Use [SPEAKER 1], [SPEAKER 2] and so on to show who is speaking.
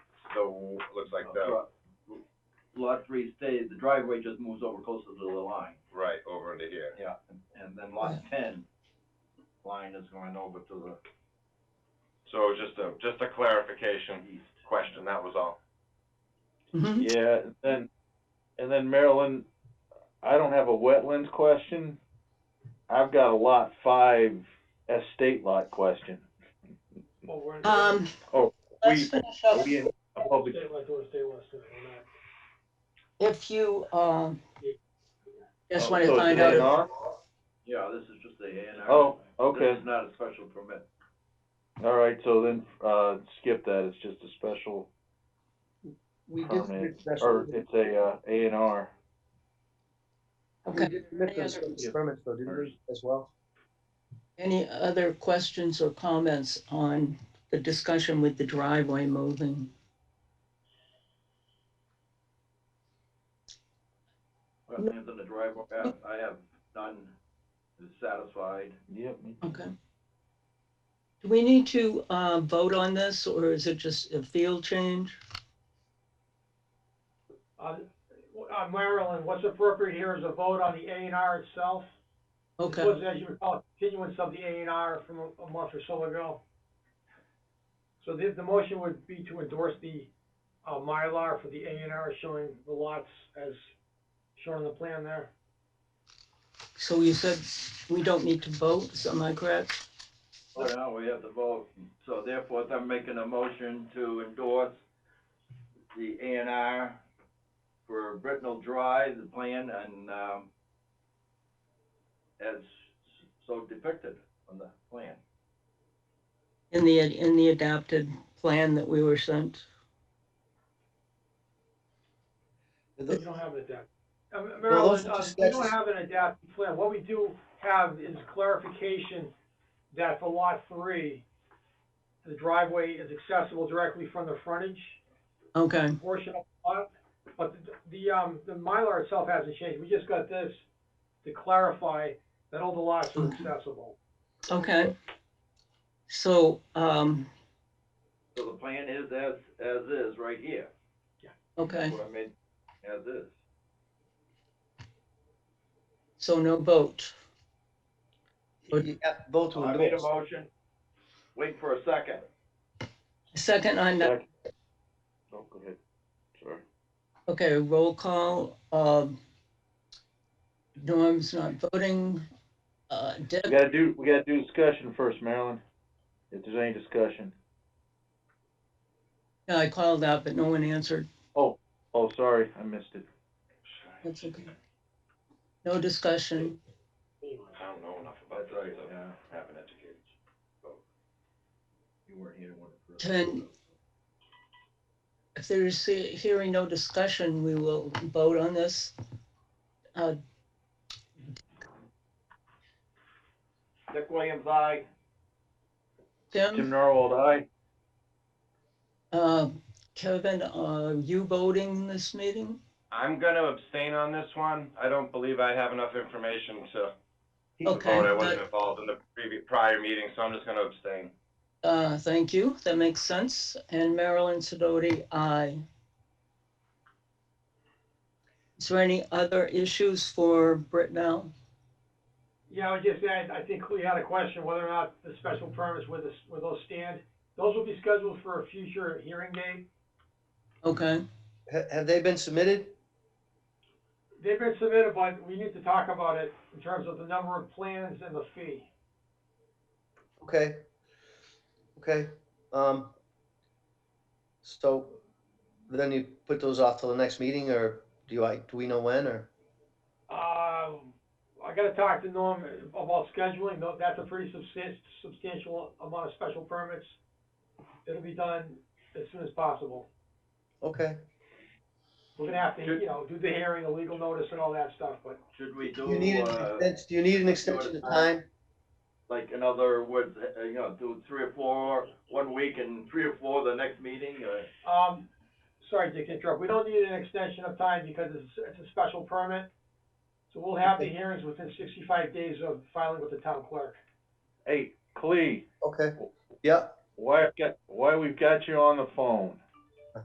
[SPEAKER 1] So, looks like the,
[SPEAKER 2] Lot lot three stays, the driveway just moves over closer to the line.
[SPEAKER 1] right, over into here.
[SPEAKER 2] Yeah. And then lot ten, line is going over to
[SPEAKER 1] So just a, just a
[SPEAKER 2] the
[SPEAKER 1] clarification
[SPEAKER 2] east.
[SPEAKER 1] question, that was all.
[SPEAKER 3] Mm-hmm.
[SPEAKER 4] Yeah, and then, and then Marilyn, I don't have a wetlands question. I've got a lot five estate lot question.
[SPEAKER 3] Um,
[SPEAKER 4] Oh,
[SPEAKER 3] let's
[SPEAKER 4] we-
[SPEAKER 3] finish up.
[SPEAKER 4] We in a public,
[SPEAKER 5] Stay like, or stay west, or not.
[SPEAKER 3] If you, um, just
[SPEAKER 4] Oh,
[SPEAKER 3] want to
[SPEAKER 4] so
[SPEAKER 3] find
[SPEAKER 4] it's
[SPEAKER 3] out,
[SPEAKER 4] A and
[SPEAKER 3] if-
[SPEAKER 4] R?
[SPEAKER 2] Yeah, this is just the A and R.
[SPEAKER 4] Oh, okay.
[SPEAKER 2] This is not a special permit.
[SPEAKER 4] all right, so then, uh, skip that, it's just a special
[SPEAKER 6] We did
[SPEAKER 4] permit, or
[SPEAKER 6] special,
[SPEAKER 4] it's a, uh, A and R.
[SPEAKER 6] we
[SPEAKER 3] okay,
[SPEAKER 6] did permit
[SPEAKER 3] Any
[SPEAKER 6] those
[SPEAKER 3] other-
[SPEAKER 6] special permits though, didn't we, as well?
[SPEAKER 3] any other questions or comments on the discussion with the driveway moving?
[SPEAKER 2] Wetlands in the driveway, I have- I have none, is satisfied.
[SPEAKER 4] Yep. me too.
[SPEAKER 3] Okay. Do we need to, uh, vote on this or is it just a field change?
[SPEAKER 5] Uh, uh, Marilyn, what's appropriate here is a vote on the A and R itself. This
[SPEAKER 3] Okay,
[SPEAKER 5] was, as you recall, a continuance of the A and R from a- a month or so ago. So the, the motion would be to endorse the, uh, Mylar for the A and R showing the lots as shown on the plan there.
[SPEAKER 3] so you said we don't need to vote, so am I correct?
[SPEAKER 2] So now we have to vote, so therefore I'm making a motion to endorse the A and R for Brittenell Drive, the plan, and, um, as so depicted on the plan.
[SPEAKER 3] In the, in the adapted plan that we were sent?
[SPEAKER 5] We don't have an adapt. Uh,
[SPEAKER 6] Well, those
[SPEAKER 5] Marilyn, uh,
[SPEAKER 6] just-
[SPEAKER 5] we don't have an adaptive plan. What we do have is clarification that for lot three, the driveway is accessible directly from the frontage
[SPEAKER 3] Okay,
[SPEAKER 5] portion of the lot. But the, the, um, the Mylar itself hasn't changed. We just got this to clarify that all the lots are accessible.
[SPEAKER 3] okay. So, um,
[SPEAKER 2] So the plan is as, as is right here,
[SPEAKER 3] okay,
[SPEAKER 2] what I made, as is.
[SPEAKER 3] so no vote. But-
[SPEAKER 6] Yeah, uh, vote to
[SPEAKER 2] I made a
[SPEAKER 6] endorse.
[SPEAKER 2] motion, wait for a second.
[SPEAKER 3] Second on that,
[SPEAKER 4] Second. Oh, go ahead, sorry.
[SPEAKER 3] okay, roll call, um, Norm's not voting, uh,
[SPEAKER 4] We
[SPEAKER 3] Deb,
[SPEAKER 4] gotta do, we gotta do discussion first, Marilyn, if there's any discussion.
[SPEAKER 3] I called out, but no one answered,
[SPEAKER 4] Oh, sorry, I missed it.
[SPEAKER 3] that's okay. No discussion,
[SPEAKER 1] I don't know enough about
[SPEAKER 2] That's right,
[SPEAKER 1] this, I
[SPEAKER 2] yeah.
[SPEAKER 1] haven't educated.
[SPEAKER 2] You weren't here when it first.
[SPEAKER 3] Ten. if there's, he- hearing no discussion, we will vote on this. Uh,
[SPEAKER 2] Dick Williams, aye.
[SPEAKER 4] Tim
[SPEAKER 3] Tim,
[SPEAKER 4] Norwald, aye?
[SPEAKER 3] uh, Kevin, are you voting this meeting?
[SPEAKER 1] I'm gonna abstain on this one. I don't believe I have enough information to
[SPEAKER 3] Okay,
[SPEAKER 1] vote. I
[SPEAKER 3] but-
[SPEAKER 1] wasn't involved in the previous, prior meeting, so I'm just gonna abstain.
[SPEAKER 3] Uh, thank you, that makes sense. And Marilyn Sidoti, aye. Is there any other issues for Britt now?
[SPEAKER 5] Yeah, I would just add, I think we had a question whether or not the special permits with this, with those stand. Those will be scheduled for a future hearing date.
[SPEAKER 3] Okay,
[SPEAKER 6] Ha- Have they been submitted?
[SPEAKER 5] They've been submitted, but we need to talk about it in terms of the number of plans and the fee.
[SPEAKER 6] Okay. Okay, um. So then you put those off till the next meeting or do I, do we know when or?
[SPEAKER 5] Uh, I gotta talk to Norm about scheduling, though, that's a pretty subsist, substantial amount of special permits. It'll be done as soon as possible.
[SPEAKER 6] Okay,
[SPEAKER 5] We're gonna have to, you know, do the hearing, a legal notice and all that stuff, but
[SPEAKER 2] Should we
[SPEAKER 6] do you need,
[SPEAKER 2] do,
[SPEAKER 6] an
[SPEAKER 2] uh,
[SPEAKER 6] extens- do you need an extension of time?
[SPEAKER 2] like in other words, uh, you know, do three or four one week and three or four the next meeting, or?
[SPEAKER 5] Um, sorry, Dick, to interrupt. We don't need an extension of time because it's, it's a special permit. So we'll have the hearings within sixty-five days of filing with the town clerk.
[SPEAKER 4] Hey, Clee,
[SPEAKER 6] Okay, yeah,
[SPEAKER 4] why, I've got- why we've got you on the phone?